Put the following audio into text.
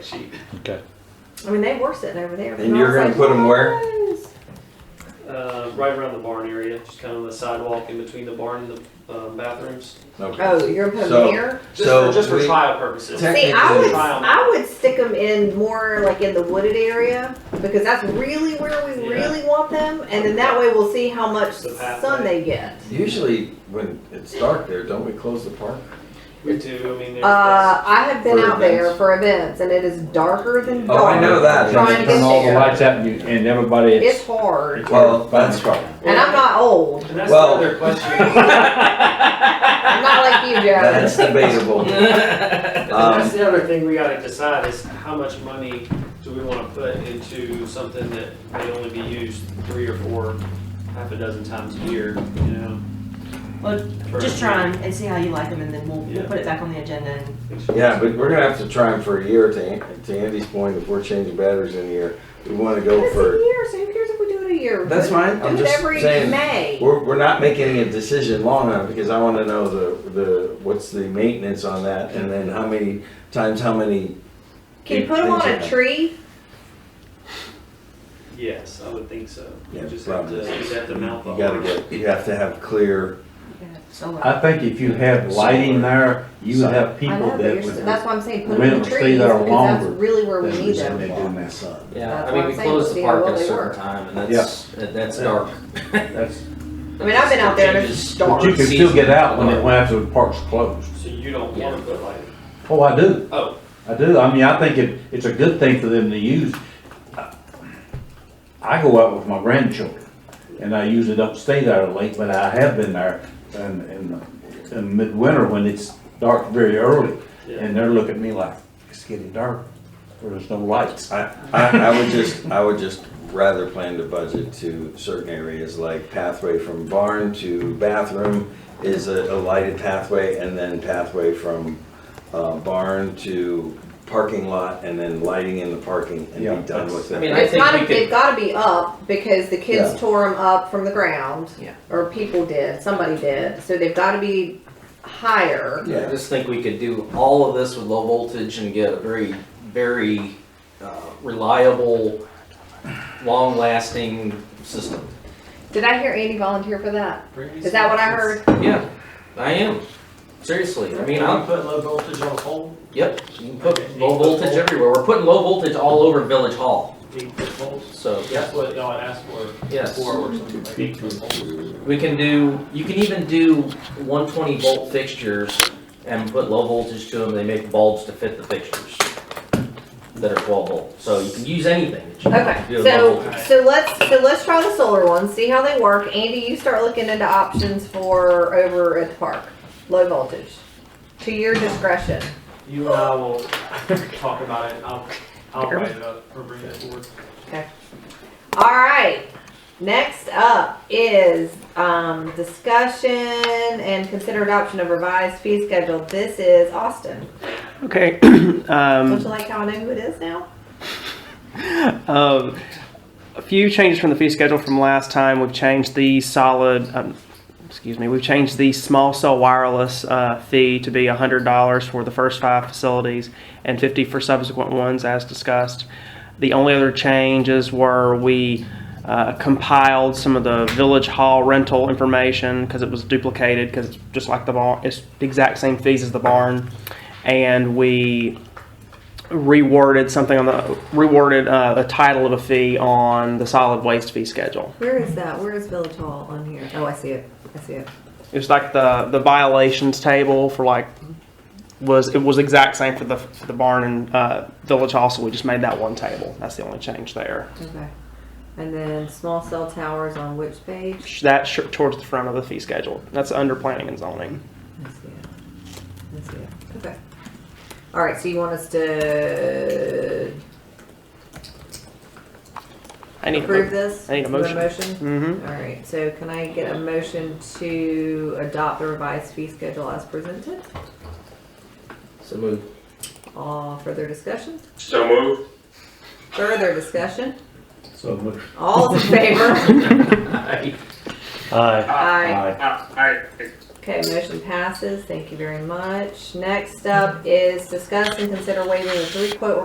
sheet. Okay. I mean, they were sitting over there. but And I you're was gonna like, put 'em where? "Guys." Uh, right around the barn area, just kind of the sidewalk in between the barn and the um, bathrooms. Oh, you're gonna put So- them here? Just So for, just for we- trial purposes. Tech- See, I Technically- would, I would stick them in more like in the wooded area because that's really where we Yeah. really want them. And then that way we'll see how much The pathway. sun they get. Usually when it's dark there, don't we close the park? We do. I mean, there's Uh, I have been For out there events. for events and it is darker than Oh, I dark. know that. Trying to Turn get all the there. lights out and, you- and everybody, It's it's, hard. it's Well, hard to find that's- a car. And I'm not old. and that's well- um, the other question. I'm not like you, Joe. That's debatable. And that's Um, the other thing we got to decide is how much money do we want to put into something that may only be used three or four, half a dozen times a year, you know? Well, For- Just try 'em and see how you like them, and then we'll, we'll Yeah. put it back on the agenda. And Yeah, but we're gonna have to try them for a year to, An- to Andy's point, if we're changing batteries in here, we wanna go It's a for, year, so who cares if we do it a year? That's Do it- fine. I'm Do it just every saying- May. we're, we're not making a decision long enough because I wanna know the, the, what's the maintenance on that and then how many times, how many. Can you put them on things a tree? Yes, I would think so. Yeah, you just have to, probably. you just have to mount the You gotta horn. get, you have to have clear, Solar. I think if you have lighting there, you would have I people know, but that you're, would. st- that's why I'm saying put Women them in will stay trees, there because that's longer really where we than need They them. do in the sun. Yeah, That's I what mean, I'm we saying, close see the how park well at a they certain work. time, and that's, that- that's dark. That's, I mean, I've been out there and it's but stark. you can still get out when it, when after the park's closed. So you don't want to put lighting. Oh, I do. Oh, I do. I mean, I think it, it's a good thing for them to use. I go out with my grandchildren, and I usually don't stay there late, but I have been there in, in, in midwinter when it's dark very early, yeah. and they're looking at me like, it's getting dark, there's no lights. I, I, I would just, I would just rather plan to budget to certain areas, like pathway from barn to bathroom is a, a lighted pathway, and then pathway from, uh, barn to parking lot, and then lighting in the parking, Yeah, and be done with I it. mean, I It's think gotta, we they've could, gotta be up because the kids Yeah. tore them up from the ground. Yeah. Or people did, somebody did, so they've gotta be higher. I just think we could do all of this with low voltage and get a very, very uh, reliable, long-lasting system. Did I hear Andy volunteer for that? Is that what I heard? Yeah, I am, seriously, I mean, I'm, put low voltage on hold. yep, you can put low voltage everywhere, we're putting low voltage all over Village Hall, Eight foot poles. so, That's what y'all had asked for yes. before or something like eight foot poles. We can do, you can even do one twenty volt fixtures and put low voltage to them, they make bulbs to fit the fixtures that are twelve volt, so you can use anything that you Okay, want to do. so, voltage. so let's, so let's try the solar ones, see how they work. Andy, you start looking into options for over at the park, low voltage, to your discretion. You and I will talk about it. I'll, I'll write it up or bring it forward. All right. Next up is um, discussion and consider adoption of revised fee schedule. This is Austin. Okay. Don't um, you like how I know who it is now? um, a few changes from the fee schedule from last time. We've changed the solid, um, excuse me, we've changed the small cell wireless uh, fee to be $100 for the first five facilities and 50 for subsequent ones, as discussed. The only other changes were we uh, compiled some of the village hall rental information because it was duplicated because it's just like the barn, it's the exact same fees as the barn. And we reworded something on the reworded uh, the title of a fee on the solid waste fee schedule. Where is that? Where is Village Hall on here? Oh, I see it. I see it. It was like the the violations table for like was it was exact same for the for the barn and uh, village hall, so we just made that one table. That's the only change there. Okay. And then small cell towers on which page? That sh- towards the front of the fee schedule. That's under planning and zoning. I see it. I see it. Okay. All right. So you want us to I need approve to. this? I need a Do you want motion? Mm-hmm. All right, so can I get a motion to adopt the revised fee schedule as presented? So move. All further discussion? So move. Further discussion? So much. All in favor? Aye. Aye. Aye. Okay, motion passes. Thank you very much. Next up is discuss and consider waiving the three quote